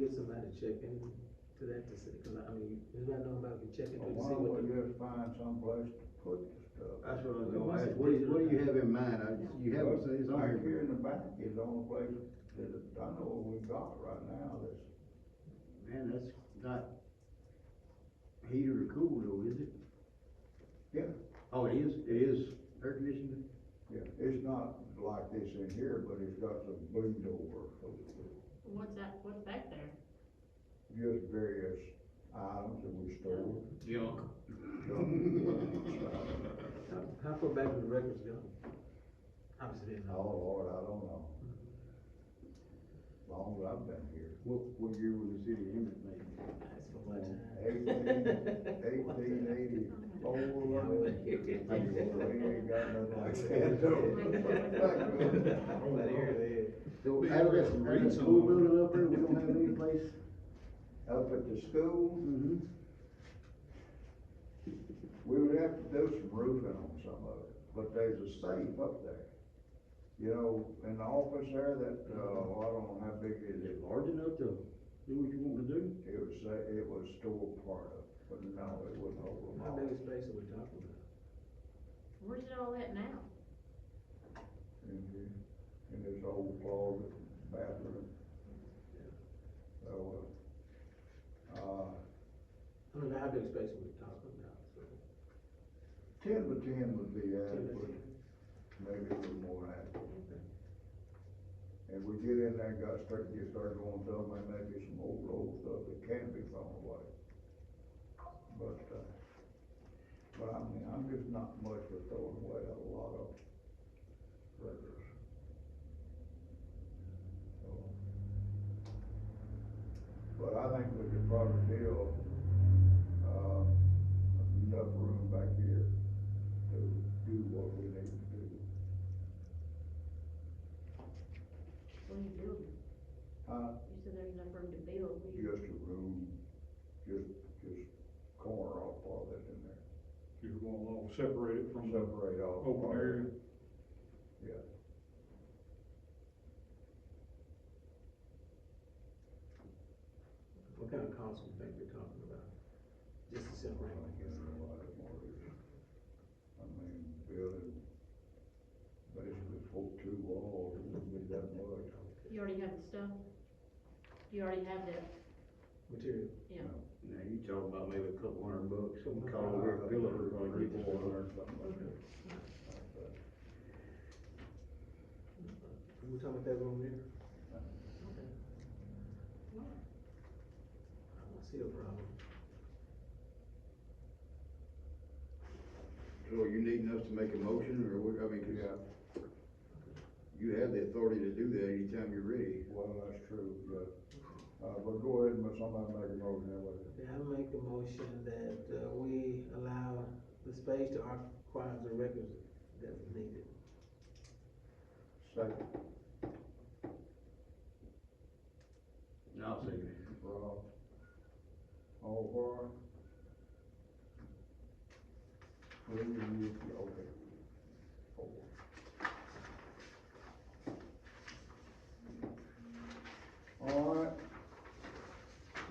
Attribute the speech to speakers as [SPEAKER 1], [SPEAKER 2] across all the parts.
[SPEAKER 1] get somebody to check in to that to see, cause I mean, anybody know about can check
[SPEAKER 2] I
[SPEAKER 1] into to see
[SPEAKER 2] wonder
[SPEAKER 1] what
[SPEAKER 2] if
[SPEAKER 1] the.
[SPEAKER 2] you find someplace to put the stuff.
[SPEAKER 3] That's what I was gonna ask, what do you, what do you have in mind, I, you have, it's on
[SPEAKER 2] Back here
[SPEAKER 3] your,
[SPEAKER 2] in the back is the only place that I know we got right now that's,
[SPEAKER 3] man, that's not heated or cooled though, is it?
[SPEAKER 2] yeah,
[SPEAKER 3] Oh, it is, it is air conditioning?
[SPEAKER 2] yeah, it's not like this in here, but it's got some bleed over.
[SPEAKER 4] What's that, what's back there?
[SPEAKER 2] Just various items that we store.
[SPEAKER 5] Junk.
[SPEAKER 1] How, how far back do the records go? Obviously, they
[SPEAKER 2] Oh,
[SPEAKER 1] know.
[SPEAKER 2] Lord, I don't know. Long as I've been here.
[SPEAKER 3] What, what year was the city of Emmett made?
[SPEAKER 1] That's for my
[SPEAKER 2] Oh.
[SPEAKER 1] time.
[SPEAKER 2] Eighteen eighty-four.
[SPEAKER 1] Yeah, I wasn't here.
[SPEAKER 2] We ain't got nothing like that, though.
[SPEAKER 1] But here it is.
[SPEAKER 3] So,
[SPEAKER 5] Big
[SPEAKER 3] out of that,
[SPEAKER 5] reason
[SPEAKER 3] out of that
[SPEAKER 5] so
[SPEAKER 3] school
[SPEAKER 5] long.
[SPEAKER 3] building up there, we don't have any place?
[SPEAKER 2] Up at the school,
[SPEAKER 3] Mm-hmm.
[SPEAKER 2] we would have to do some roofing on some of it, but there's a safe up there. You know, in the office there, that, uh, I don't know how big it
[SPEAKER 3] Is
[SPEAKER 2] is,
[SPEAKER 3] it large enough to do what you want to do?
[SPEAKER 2] it was, sa- it was still part of, it, but no, it wasn't over.
[SPEAKER 1] How big a space are we talking about?
[SPEAKER 4] Where's it all at now?
[SPEAKER 2] in here, in this old closet, bathroom. So, uh, uh,
[SPEAKER 1] I don't know how big a space are we talking about, so.
[SPEAKER 2] ten by ten would be adequate, maybe a little more adequate. If we get in there and got start, get started going some, there may be some old old stuff that can be thrown away. But, uh, but I mean, I'm just not much for throwing away a lot of records. So, But I think we could probably deal, uh, enough room back here to do what we need to do.
[SPEAKER 4] What are you building?
[SPEAKER 2] Uh,
[SPEAKER 4] You said there's enough room to build. What do you-
[SPEAKER 2] just a room, just, just corner off all that in there,
[SPEAKER 5] You're gonna all separate it from the
[SPEAKER 2] separate off.
[SPEAKER 5] open area.
[SPEAKER 2] Yeah.
[SPEAKER 1] What kind of cost we think we're talking about? Just a simple.
[SPEAKER 2] I think it's a lot more, I mean, building, basically four, two walls, it wouldn't be that much.
[SPEAKER 4] You already have the stuff? You already have the,
[SPEAKER 1] Material.
[SPEAKER 4] yeah.
[SPEAKER 3] Now, you talking about maybe a couple hundred bucks, some call over a bill or gonna get
[SPEAKER 2] Four
[SPEAKER 3] one or
[SPEAKER 2] hundred, something like that. But
[SPEAKER 1] We talking about that room there?
[SPEAKER 4] Why?
[SPEAKER 1] I don't see a problem.
[SPEAKER 3] So you needing us to make a motion, or what, I mean, 'cause
[SPEAKER 2] Yeah.
[SPEAKER 3] you have the authority to do that anytime you're ready.
[SPEAKER 2] Well, that's true, yeah. Uh, but go ahead and somebody make a motion, that way.
[SPEAKER 1] Okay, I make the motion that, uh, we allow the space to acquire the records that's needed.
[SPEAKER 2] Second,
[SPEAKER 3] I'll second it.
[SPEAKER 2] Rob. All for? it? Three, you- you- okay. Four. All right.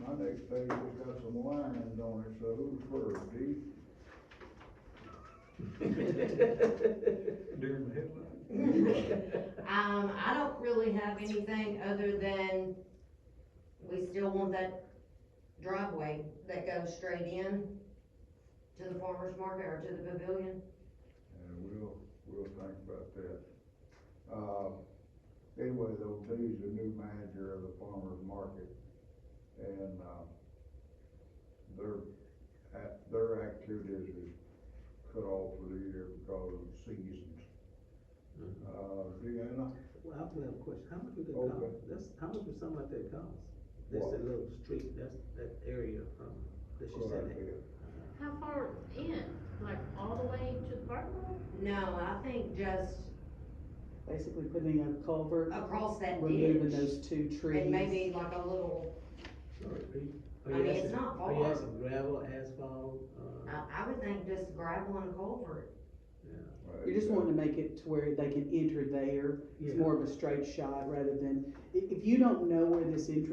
[SPEAKER 2] My next page has got some lines on it, so who's first, D?
[SPEAKER 5] Deer in the headlights.
[SPEAKER 6] Um, I don't really have anything other than we still want that driveway that goes straight in to the farmer's market or to the pavilion.
[SPEAKER 2] And we'll, we'll think about that. Uh, anyway, though, D's the new manager of the farmer's market, and, uh, their, ac- their activities is cut off for the year because of seasons. Uh, Deanna,
[SPEAKER 1] Well, I have a question, how much would that
[SPEAKER 2] Okay.
[SPEAKER 1] cost? That's, how much would something like that cost? That's
[SPEAKER 2] What?
[SPEAKER 1] that little street, that's that area from, that you said that.
[SPEAKER 2] Clarabelle.
[SPEAKER 4] How far in? Like all the way to the parking lot?
[SPEAKER 6] No, I think just
[SPEAKER 7] basically putting in a culvert,
[SPEAKER 6] across that
[SPEAKER 7] removing
[SPEAKER 6] ditch.
[SPEAKER 7] those two trees.
[SPEAKER 6] And maybe like a little,
[SPEAKER 1] Are
[SPEAKER 6] I
[SPEAKER 1] you
[SPEAKER 6] mean, it's
[SPEAKER 1] asking-
[SPEAKER 6] not
[SPEAKER 1] Are you
[SPEAKER 6] far.
[SPEAKER 1] asking gravel, asphalt, uh,
[SPEAKER 6] I, I would think just gravel and a culvert.
[SPEAKER 1] yeah?
[SPEAKER 7] You just wanting to make it to where they can enter there,
[SPEAKER 1] Yeah.
[SPEAKER 7] it's more of a straight shot rather than, i- if you don't know where this entrance